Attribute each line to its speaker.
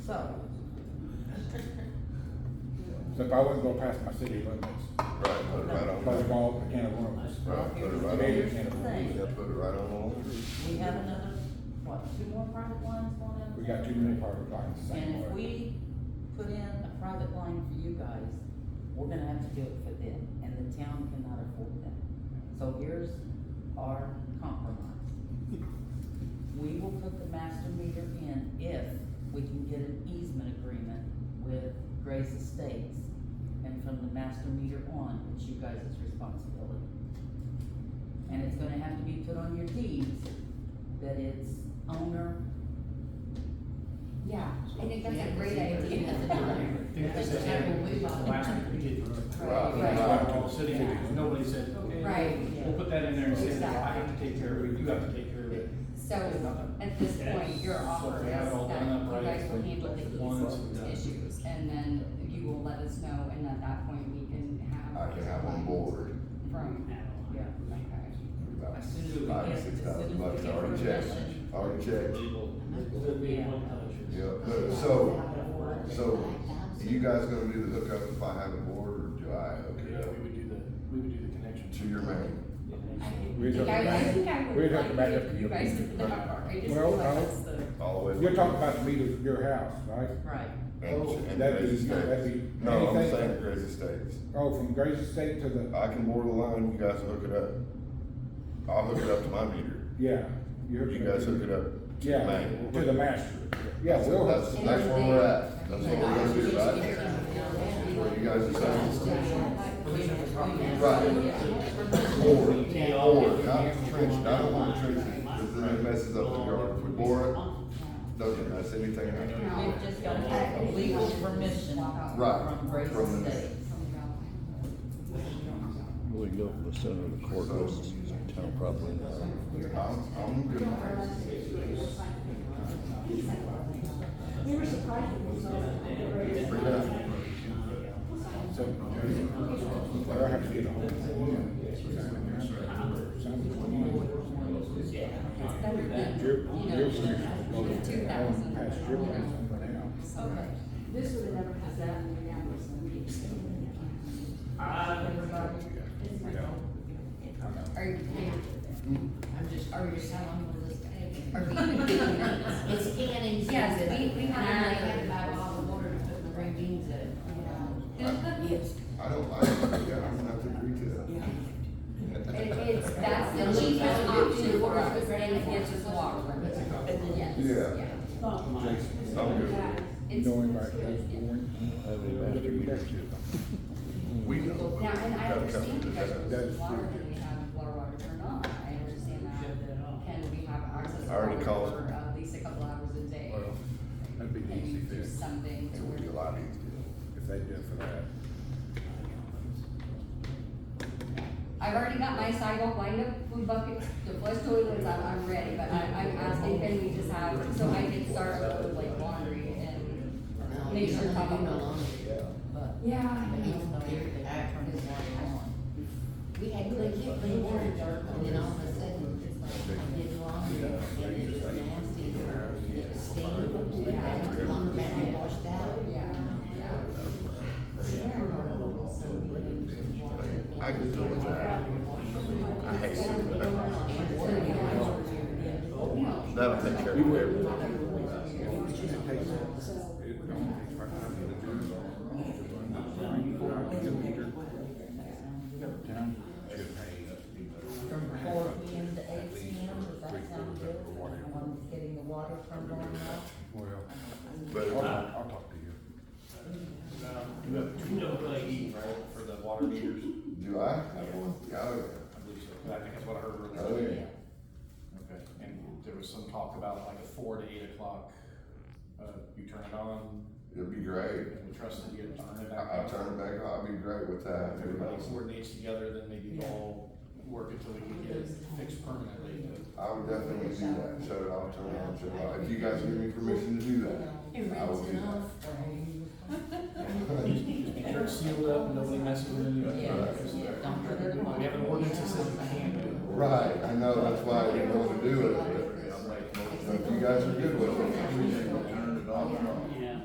Speaker 1: so.
Speaker 2: So if I wasn't gonna pass my city limits,
Speaker 3: Right, put it right on.
Speaker 2: but it all can of worms.
Speaker 3: Right, put it right on.
Speaker 2: Here's the
Speaker 1: thing.
Speaker 3: Yeah, put it right on the line.
Speaker 1: We have another, what, two more private lines going down?
Speaker 2: We got too many parking lots, the
Speaker 1: And
Speaker 2: same
Speaker 1: if
Speaker 2: way.
Speaker 1: we put in a private line for you guys, we're gonna have to do it for them, and the town cannot afford that. So here's our compromise. We will put the master meter in if we can get an easement agreement with Grace Estates. And from the master meter on, it's you guys' responsibility. And it's gonna have to be put on your deeds that it's owner
Speaker 4: Yeah, I think that's a
Speaker 1: Yeah,
Speaker 4: great
Speaker 1: that's a
Speaker 4: idea.
Speaker 1: great idea.
Speaker 5: I think that's exactly what the last one we did.
Speaker 4: Right,
Speaker 5: We
Speaker 4: right.
Speaker 5: talked to all the city, nobody said, okay.
Speaker 4: Right.
Speaker 5: We'll put that in there and say, well, I have to
Speaker 4: Exactly.
Speaker 5: take care of it, you have to take care of it.
Speaker 4: So at this point, your
Speaker 5: So
Speaker 4: offer is
Speaker 5: we have it all
Speaker 4: that
Speaker 5: done up
Speaker 4: you
Speaker 5: right,
Speaker 4: guys will
Speaker 5: we
Speaker 4: handle the
Speaker 5: put it once and
Speaker 4: easement
Speaker 5: done.
Speaker 4: issues and then you will let us know and at that point we can have.
Speaker 3: I can have on board.
Speaker 4: From.
Speaker 1: Yeah.
Speaker 4: Okay.
Speaker 3: about
Speaker 1: As soon as we
Speaker 3: Five,
Speaker 1: get-
Speaker 3: six
Speaker 1: as soon as
Speaker 3: thousand
Speaker 1: we
Speaker 3: bucks,
Speaker 1: get
Speaker 3: already checked,
Speaker 1: permission.
Speaker 3: already checked. Yeah,
Speaker 6: Yeah,
Speaker 3: so, so, you guys gonna do the hookup if I have a board, or do I hook
Speaker 5: Okay,
Speaker 3: it
Speaker 5: yeah, we
Speaker 3: up
Speaker 5: would do the, we would do the connection.
Speaker 3: to your main?
Speaker 2: We'd have to
Speaker 4: I, I
Speaker 2: back-
Speaker 4: think I
Speaker 2: we'd
Speaker 4: would
Speaker 2: have to
Speaker 4: like
Speaker 2: back
Speaker 4: if
Speaker 2: up to
Speaker 4: you
Speaker 2: your
Speaker 4: guys
Speaker 2: meter.
Speaker 4: did that, I just
Speaker 2: Well,
Speaker 4: feel like
Speaker 2: I don't-
Speaker 4: that's the.
Speaker 3: All the way.
Speaker 2: You're talking about the meter of your house, right?
Speaker 1: Right,
Speaker 3: And-
Speaker 2: Oh,
Speaker 3: and
Speaker 2: that'd be-
Speaker 3: Grace Estates.
Speaker 2: that'd be-
Speaker 3: No, I'm
Speaker 2: anything.
Speaker 3: saying Grace Estates.
Speaker 2: Oh, from Grace Estate to the,
Speaker 3: I can board the line, you guys hook it up. I'll hook it up to my meter.
Speaker 2: yeah. you're
Speaker 3: You guys hook it up to the
Speaker 2: Yeah,
Speaker 3: main.
Speaker 2: to the master. Yeah,
Speaker 3: That's-
Speaker 2: we'll
Speaker 3: That's,
Speaker 2: have,
Speaker 4: And
Speaker 3: that's
Speaker 4: then
Speaker 3: where
Speaker 4: they-
Speaker 3: we're at. That's what we're gonna do, right?
Speaker 4: Yeah.
Speaker 3: Where you guys decide.
Speaker 1: yeah.
Speaker 3: Or, or, not trench, it. I don't want to trench it, because then it messes up the yard. If we bore it, doesn't mess anything up.
Speaker 4: No.
Speaker 1: We've just got to have legal permission
Speaker 3: Right,
Speaker 1: from Grace
Speaker 3: from the-
Speaker 1: Estates.
Speaker 6: We go to the center of the courthouse and use the town property.
Speaker 3: I'm, I'm good.
Speaker 2: so, but I have to get a hold of them.
Speaker 4: It's better than,
Speaker 2: Your,
Speaker 4: you know,
Speaker 2: your meter,
Speaker 4: two thousand.
Speaker 2: past your house, somewhere else.
Speaker 4: Okay.
Speaker 7: This would have never happened in the numbers of meetings.
Speaker 4: Are you, I'm just, are you selling with this
Speaker 7: It's scanning.
Speaker 4: Yes, we- we have-
Speaker 7: And I had about all the water to put in the green beans in, you know. Yes.
Speaker 3: I don't like it, yeah, I'm gonna have to agree to
Speaker 4: It,
Speaker 3: that.
Speaker 4: it's, that's the cheapest option for us, because then it gets us water. Yes,
Speaker 3: Yeah.
Speaker 4: yeah.
Speaker 3: I'm good.
Speaker 4: It's-
Speaker 2: Knowing like that's boring.
Speaker 6: Have any master meters here.
Speaker 3: We know.
Speaker 4: Now, and I understand you guys
Speaker 3: That-
Speaker 4: are
Speaker 2: That's
Speaker 4: using water,
Speaker 2: true.
Speaker 4: do we have water water or not? I understand that. Can we have access to
Speaker 3: I already
Speaker 4: water
Speaker 3: called.
Speaker 4: for at least a couple hours a day?
Speaker 3: Well,
Speaker 2: That'd be the
Speaker 4: Can
Speaker 2: easy
Speaker 4: you do
Speaker 2: fix
Speaker 4: something to
Speaker 3: It would be a
Speaker 4: where?
Speaker 3: lot easier.
Speaker 2: if they did for that.
Speaker 4: I've already got my sidewalk lined up, food buckets, the flush toilets, I'm, I'm ready, but I, I'm asking, can we just have, so I can start with like laundry and make sure.
Speaker 1: But
Speaker 4: Yeah.
Speaker 1: they don't know if they can turn the water on.
Speaker 7: We had clean, clean water, and then all of a sudden, it's like, I did laundry, and it was nasty, or it was steam, and I had to laundry back and washed out.
Speaker 4: Yeah, yeah.
Speaker 3: I could do it. I hate it. That'll take care of everything.
Speaker 2: It don't take much time to do it all. Town should pay.
Speaker 1: From four P M to eight P M, does that sound good? Everyone's getting the water turned on now?
Speaker 2: Well,
Speaker 3: But
Speaker 2: I'll,
Speaker 3: if-
Speaker 2: I'll talk to you.
Speaker 5: You have two double LED, right, for the water meters?
Speaker 3: do I have one? Yeah, oh,
Speaker 5: I believe so. I think that's what I heard
Speaker 3: yeah.
Speaker 5: earlier.
Speaker 3: Oh, yeah.
Speaker 5: Okay, and there was some talk about like a four to eight o'clock, uh, you turn it on,
Speaker 3: It'd be great.
Speaker 5: and we trust that you get to turn it
Speaker 3: I-
Speaker 5: back on.
Speaker 3: I'll turn it back uh, on. I'll be great with that.
Speaker 5: If everybody coordinates together, then maybe we'll work until we can get it fixed permanently,
Speaker 3: I would definitely do that. Shut it off, turn it on, shut it off. If you guys give me permission to do that, I will